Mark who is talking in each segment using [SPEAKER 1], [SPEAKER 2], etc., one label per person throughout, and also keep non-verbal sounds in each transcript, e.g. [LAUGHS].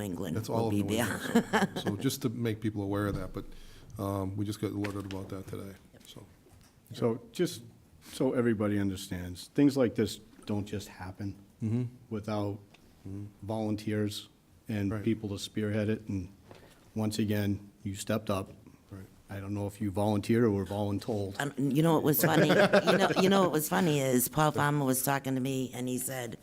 [SPEAKER 1] England
[SPEAKER 2] That's all
[SPEAKER 1] will
[SPEAKER 2] of
[SPEAKER 1] be
[SPEAKER 2] New
[SPEAKER 1] there. [LAUGHS]
[SPEAKER 2] England. so-
[SPEAKER 3] [LAUGHS]
[SPEAKER 2] So just to make people aware of that, but um, we just got alerted about that today, so.
[SPEAKER 3] So just so everybody understands, things like this don't just happen without Mm-hmm. volunteers and
[SPEAKER 2] Right.
[SPEAKER 3] people to spearhead it. And once again, you stepped up.
[SPEAKER 2] Right.
[SPEAKER 3] I don't know if you volunteered or were voluntold.
[SPEAKER 1] Um, you know what was funny? you know, you know what was funny is Paul Farmer was talking to me and he said,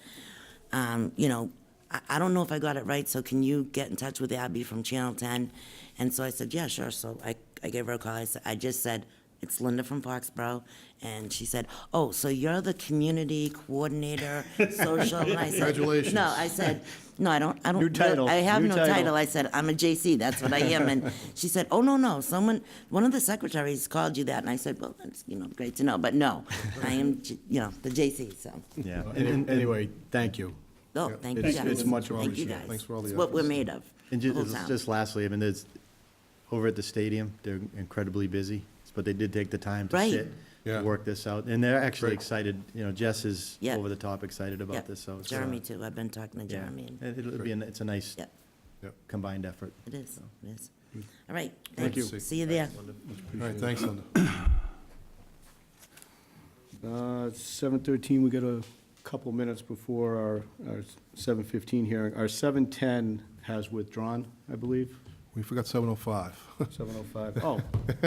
[SPEAKER 1] um, you know, I, I don't know if I got it right, so can you get in touch with Abby from Channel 10? And so I said, yeah, sure. So I, I gave her a call. I, said, I just said, it's Linda from Foxborough. And she said, oh, so you're the community
[SPEAKER 2] [LAUGHS]
[SPEAKER 1] coordinator, social. And I said,
[SPEAKER 2] Congratulations.
[SPEAKER 1] No, I said, no, I don't, I don't.
[SPEAKER 3] New
[SPEAKER 1] really-
[SPEAKER 3] title,
[SPEAKER 1] I have
[SPEAKER 3] new
[SPEAKER 1] no
[SPEAKER 3] title.
[SPEAKER 1] title. I said, I'm a JC, that's what I am. And she said, oh, no, no, someone, one of the secretaries called you that. And I said, well, that's, you know, great to know, but no, I am, J- you know, the JC, so.
[SPEAKER 3] Yeah. Anyway, thank you.
[SPEAKER 1] Oh, thank you
[SPEAKER 3] It's-
[SPEAKER 1] guys.
[SPEAKER 3] it's much
[SPEAKER 1] Thank you
[SPEAKER 2] appreciated.
[SPEAKER 1] guys.
[SPEAKER 2] Thanks for all the
[SPEAKER 1] It's what we're
[SPEAKER 2] efforts.
[SPEAKER 1] made of.
[SPEAKER 4] And
[SPEAKER 1] the whole
[SPEAKER 4] just,
[SPEAKER 1] town.
[SPEAKER 4] just lastly, I mean, there's, over at the stadium, they're incredibly busy, but they did take the time to
[SPEAKER 1] Right.
[SPEAKER 4] sit,
[SPEAKER 2] Yeah.
[SPEAKER 4] to work this out, and they're actually
[SPEAKER 2] Great.
[SPEAKER 4] excited, you know, Jess is
[SPEAKER 1] Yeah.
[SPEAKER 4] over the top excited
[SPEAKER 1] Yeah,
[SPEAKER 4] about this, so. it's, uh,
[SPEAKER 1] Jeremy too, I've been talking to
[SPEAKER 4] yeah.
[SPEAKER 1] Jeremy. and-
[SPEAKER 4] It- It'll be, an- it's a nice
[SPEAKER 1] Yeah,
[SPEAKER 2] Yep.
[SPEAKER 4] combined effort.
[SPEAKER 1] it is, it is. All right.
[SPEAKER 2] Thank
[SPEAKER 1] thanks.
[SPEAKER 2] you.
[SPEAKER 1] See you there.
[SPEAKER 2] All right, thanks, Linda.
[SPEAKER 3] Uh, 7:13, we got a couple minutes before our, our 7:15 hearing. Our 7:10 has withdrawn, I believe,
[SPEAKER 2] We forgot 7:05.
[SPEAKER 3] 7:05. Oh.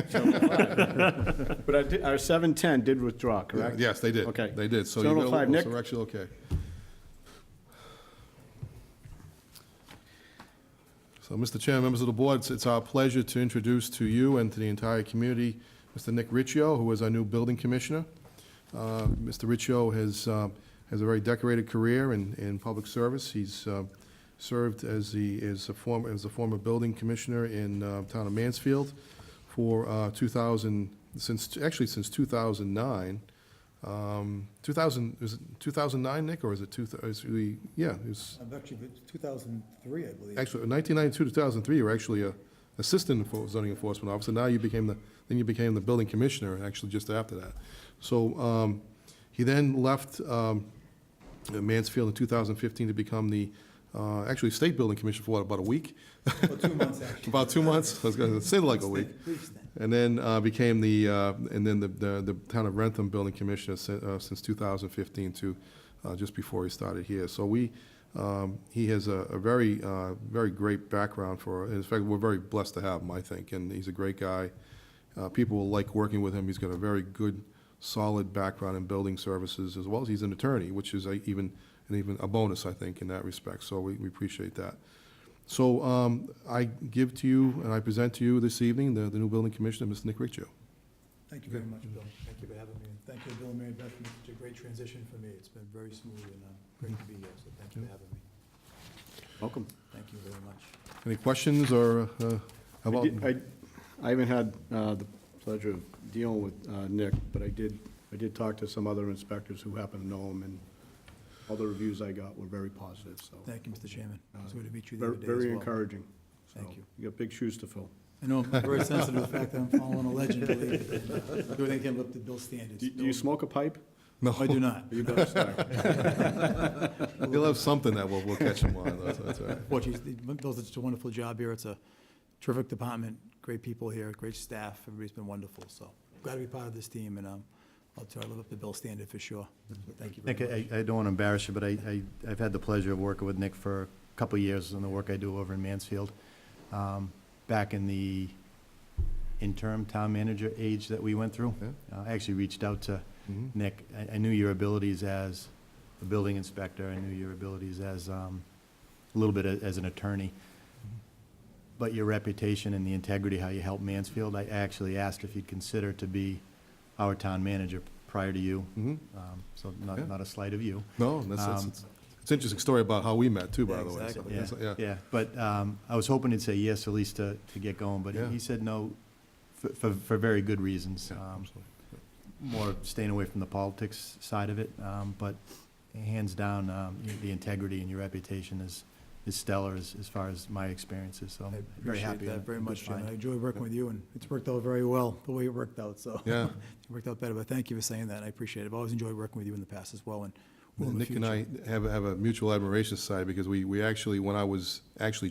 [SPEAKER 3] 7:05. [LAUGHS] But our di- our 7:10 did withdraw,
[SPEAKER 2] [LAUGHS]
[SPEAKER 3] correct?
[SPEAKER 2] Yes, they did.
[SPEAKER 3] Okay.
[SPEAKER 2] They did, so you're
[SPEAKER 3] 7:05,
[SPEAKER 2] gonna-
[SPEAKER 3] Nick?
[SPEAKER 2] so we're actually okay. So, Mr. Chairman, members of the board, it's- it's our pleasure to introduce to you and to the entire community, Mr. Nick Riccio, who is our new building commissioner. Uh, Mr. Riccio has, uh, has a very decorated career in, in public service. He's uh, served as the, as a former, as a former building commissioner in uh, town of Mansfield for uh, 2000, since, actually since 2009. Um, 2000, is it 2009, Nick, or is it two, thou- is we, yeah, it was,
[SPEAKER 5] I'm actually, but 2003, I believe.
[SPEAKER 2] actually, 1992, 2003, you were actually a assistant enfor- zoning enforcement officer. Now you became the, then you became the building commissioner, actually, just after that. So um, he then left um, Mansfield in 2015 to become the, uh, actually, state building commissioner for what, about a week?
[SPEAKER 5] Well, two months,
[SPEAKER 2] [LAUGHS]
[SPEAKER 5] actually.
[SPEAKER 2] About two months? I was going to say like a week.
[SPEAKER 5] Brief stint.
[SPEAKER 2] And then uh, became the, uh, and then the, the the town of Rentham Building Commissioner si- uh, since 2015 to uh, just before he started here. So we, um, he has a a very, uh, very great background for, in fact, we're very blessed to have him, I think, and he's a great guy. Uh, People will like working with him. He's got a very good, solid background in building services, as well as he's an attorney, which is a even, an even a bonus, I think, in that respect. So we we appreciate that. So um, I give to you, and I present to you this evening, the the new building commissioner, Mr. Nick Riccio.
[SPEAKER 5] Thank you very much, Bill.
[SPEAKER 3] Mm-hmm.
[SPEAKER 5] Thank you for having me. and Thank you, Bill and Mary Beth, for such a great transition for me. It's been very smooth and uh, great to be here, so thank you for having me.
[SPEAKER 3] Welcome.
[SPEAKER 5] Thank you very much.
[SPEAKER 2] Any questions or uh,
[SPEAKER 3] I
[SPEAKER 2] about?
[SPEAKER 3] did- I I haven't had uh, the pleasure of dealing with uh, Nick, but I did, I did talk to some other inspectors who happen to know him, and all the reviews I got were very positive, so.
[SPEAKER 5] Thank you, Mr. Chairman. It's good to meet you the
[SPEAKER 3] Ver-
[SPEAKER 5] other day as well.
[SPEAKER 3] Uh, Very encouraging. So,
[SPEAKER 5] Thank you.
[SPEAKER 3] You got big shoes to fill.
[SPEAKER 5] I know, I'm very sensitive to the fact that I'm following a legend, believe it. Do anything to live up to Bill's standards.
[SPEAKER 3] Do do you smoke a pipe?
[SPEAKER 2] No,
[SPEAKER 5] I do not.
[SPEAKER 3] You better start.
[SPEAKER 2] He'll have something that will, will catch him on, that's that's all right.
[SPEAKER 5] Fortunately, Bill did such a wonderful job here. It's a terrific department, great people here, great staff. Everybody's been wonderful, so glad to be part of this team, and um, I'll try to live up to Bill's standard for sure. So Thank you very
[SPEAKER 4] Nick,
[SPEAKER 5] much.
[SPEAKER 4] I, I don't want to embarrass you, but I, I, I've had the pleasure of working with Nick for a couple of years in the work I do over in Mansfield. Um, Back in the interim town manager age that we went through,
[SPEAKER 2] Yeah.
[SPEAKER 4] uh, I actually reached out to
[SPEAKER 5] Mm-hmm.
[SPEAKER 2] Mhm.
[SPEAKER 4] Nick, I, I knew your abilities as a building inspector, I knew your abilities as, um, a little bit a- as an attorney. But your reputation and the integrity, how you helped Mansfield, I actually asked if you'd consider to be our town manager prior to you.
[SPEAKER 2] Mhm.
[SPEAKER 4] Um, So
[SPEAKER 2] Yeah.
[SPEAKER 4] not, not a slight of you.
[SPEAKER 2] No, that's, that's,
[SPEAKER 4] Um,
[SPEAKER 2] it's- it's an interesting story about how we met too, by
[SPEAKER 5] Yeah,
[SPEAKER 2] the way. so
[SPEAKER 5] exactly.
[SPEAKER 4] Yeah,
[SPEAKER 2] that's- Yeah,
[SPEAKER 4] yeah, but um, I was hoping he'd say yes at least to, to get going, but he-
[SPEAKER 2] Yeah.
[SPEAKER 4] he said no for, for, for very good reasons.
[SPEAKER 2] Yeah,
[SPEAKER 4] Um,
[SPEAKER 2] absolutely.
[SPEAKER 4] More staying away from the politics side of it, um, but hands down, um, y- the integrity and your reputation is, is stellar as, as far as my experiences, so
[SPEAKER 5] I
[SPEAKER 4] I'm very
[SPEAKER 5] appreciate
[SPEAKER 4] happy.
[SPEAKER 5] that
[SPEAKER 4] and
[SPEAKER 5] very
[SPEAKER 4] good
[SPEAKER 5] much, Jim.
[SPEAKER 4] find.
[SPEAKER 5] I enjoy working with you, and it's worked out very well, the way it worked out, so.
[SPEAKER 2] Yeah.
[SPEAKER 5] [LAUGHS] It worked out better, but thank you for saying that, and I appreciate it. I've always enjoyed working with you in the past as well, and will in the
[SPEAKER 2] Nick
[SPEAKER 5] future.
[SPEAKER 2] and I have, have a mutual admiration side because we, we actually, when I was actually